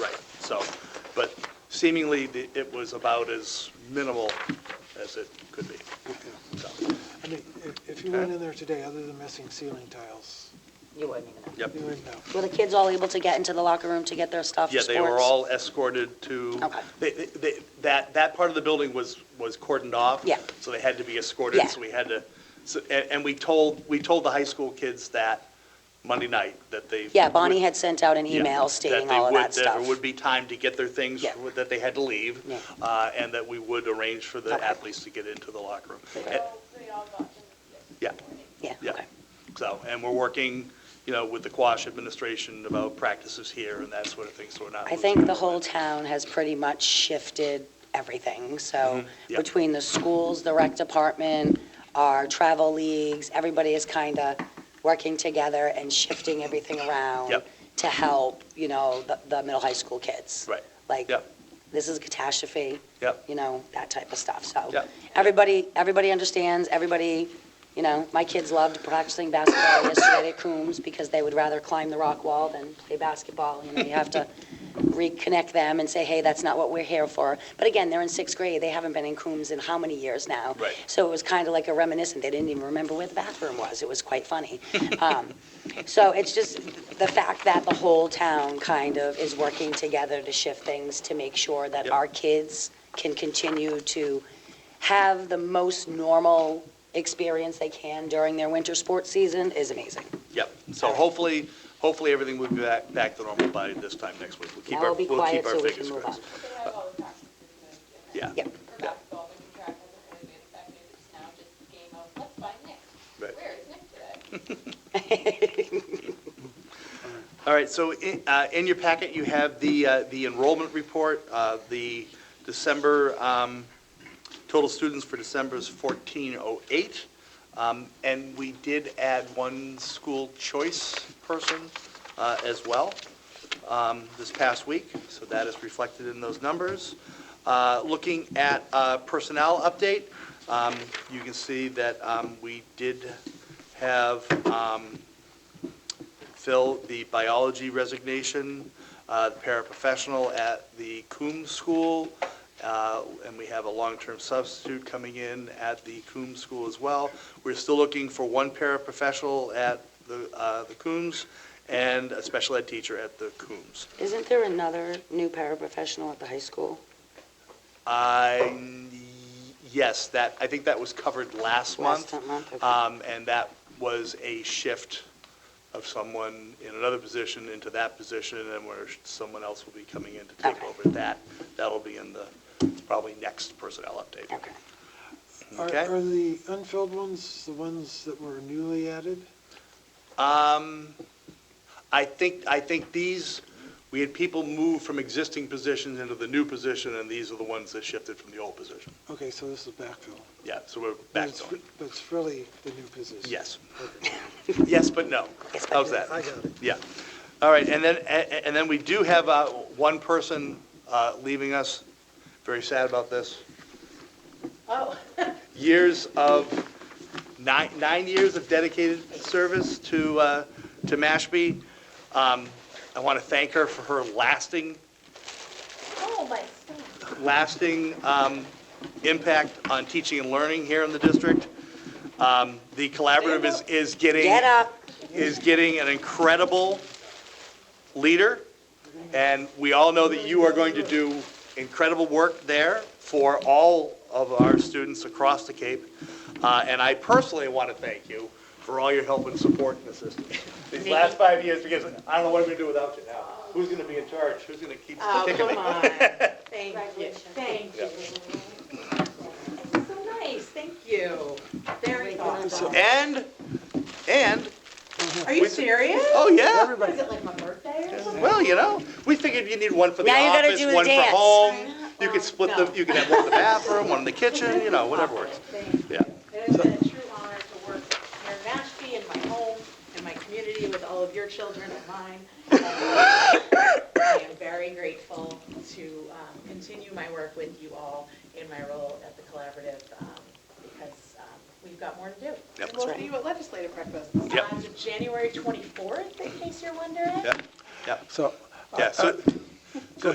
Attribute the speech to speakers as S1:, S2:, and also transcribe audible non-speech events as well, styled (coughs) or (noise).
S1: seemingly, the- it was about as minimal as it could be. So,
S2: I mean, if, if you went in there today, other than missing ceiling tiles,
S3: You wouldn't even know.
S1: Yep.
S2: you wouldn't know.
S3: Were the kids all able to get into the locker room to get their stuff for
S1: Yeah,
S3: sports?
S1: they were all escorted to,
S3: Okay.
S1: they- they- they- that, that part of the building was, was cordoned off.
S3: Yeah.
S1: So they had to be escorted,
S3: Yeah.
S1: so we had to, so- and and we told, we told the high school kids that Monday night, that they.
S3: Yeah, Bonnie
S1: would-
S3: had sent out an
S1: Yeah,
S3: email stating all of
S1: would-
S3: that
S1: There
S3: stuff.
S1: would be time to get their things,
S3: Yeah.
S1: that they had to leave,
S3: Yeah.
S1: uh, and that we would arrange for the
S3: Okay.
S1: athletes to get into the locker room.
S3: Okay.
S1: And-
S4: they all got to
S1: Yeah,
S3: Yeah,
S1: yeah.
S3: okay.
S1: So, and we're working, you know, with the Quash administration about practices here and that sort of thing, so we're not.
S3: I
S1: losing
S3: think the
S1: momentum.
S3: whole town has pretty much shifted everything. So
S1: Mm-hmm, yeah.
S3: between the schools, the rec department, our travel leagues, everybody is kind of working together and shifting everything around
S1: Yep.
S3: to help, you know, the, the middle high school kids.
S1: Right.
S3: Like,
S1: Yep.
S3: this is a catastrophe.
S1: Yep.
S3: You know, that type of stuff. So
S1: Yep.
S3: everybody, everybody understands, everybody, you know, my kids loved practicing basketball (coughs) yesterday at Coombs because they would rather climb the rock wall than play basketball. You know, you have to reconnect them and say, hey, that's not what we're here for. But again, they're in sixth grade. They haven't been in Coombs in how many years now?
S1: Right.
S3: So it was kind of like a reminiscent. They didn't even remember where the bathroom was. It was
S1: (laughs)
S3: quite funny. Um, So it's just the fact that the whole town kind of is working together to shift things to make sure that
S1: Yep.
S3: our kids can continue to have the most normal experience they can during their winter sports season is amazing.
S1: Yep, so hopefully, hopefully everything will be back, back to normal by this time next week. We'll keep
S3: Now
S1: our,
S3: we'll be
S1: we'll keep
S3: quiet
S1: our
S3: so we can
S1: fingers
S3: move on.
S1: crossed.
S4: They have all the practices and
S1: Yeah.
S3: Yep.
S4: for basketball, they can track with them, and it's, I mean, it's now just a game of, let's find Nick.
S1: Right.
S4: Where is Nick today?
S1: All right, so in, uh, in your packet, you have the, uh, the enrollment report. Uh, The December, um, total students for December is 1408. Um, And we did add one school choice person uh, as well um, this past week, so that is reflected in those numbers. Uh, Looking at uh, personnel update, um, you can see that um, we did have um, fill the biology resignation, uh, the paraprofessional at the Coombs School, uh, and we have a long-term substitute coming in at the Coombs School as well. We're still looking for one paraprofessional at the uh, the Coombs and a special ed teacher at the Coombs.
S3: Isn't there another new paraprofessional at the high school?
S1: I, yes, that, I think that was covered last month.
S3: Last month, okay.
S1: Um, And that was a shift of someone in another position into that position, and where someone else will be coming in to take
S3: Okay.
S1: over that. That'll be in the, probably next personnel update.
S3: Okay.
S2: Are,
S1: Okay.
S2: are the unfilled ones the ones that were newly added?
S1: Um, I think, I think these, we had people move from existing positions into the new position, and these are the ones that shifted from the old position.
S2: Okay, so this is backfill.
S1: Yeah, so we're
S2: But
S1: back
S2: it's-
S1: on.
S2: But it's really the new position.
S1: Yes.
S2: Okay.
S1: Yes, but no.
S3: Yes, but
S1: How's
S3: no.
S1: that?
S2: I got it.
S1: Yeah. All right, and then, a- and then we do have uh, one person uh, leaving us, very sad about this.
S4: Oh.
S1: Years of, nine, nine years of dedicated service to, uh, to Mashpee. Um, I want to thank her for her lasting,
S4: Oh, my son.
S1: lasting um, impact on teaching and learning here in the district. Um, The collaborative is, is getting
S3: Get up.
S1: is getting an incredible leader, and we all know that you are going to do incredible work there for all of our students across the Cape. Uh, And I personally want to thank you for all your help and support and assistance these last five years, because I don't know what I'm going to do without you now. Who's going to be in charge? Who's going to keep
S3: Oh.
S1: kicking it?
S5: Oh, on. Thank you. Thank you. That's So nice, thank you. Very thoughtful.
S1: And, and,
S5: Are you serious?
S1: oh, yeah,
S5: Is it like my birthday or something?
S1: well, you know, we figured you need one for the
S3: Now you gotta
S1: office,
S3: do the
S1: one for
S3: dance.
S1: home.
S5: Right.
S1: You could
S5: Well,
S1: split the,
S5: no.
S1: you could have one in the bathroom, one in the kitchen, you know, whatever works.
S5: Thank you.
S1: Yeah.
S5: It has been a true honor to work here in Mashpee, in my home, in my community, with all of your children and mine. And I am very grateful to um, continue my work with you all in my role at the Collaborative, um, because um, we've got more to do.
S1: Yep.
S5: And we'll see you at Legislative Breakfast. Uh,
S1: Yep.
S5: On January 24th, in case you're wondering.
S1: Yeah, yeah,
S2: So. I-
S1: yeah, so,
S2: I-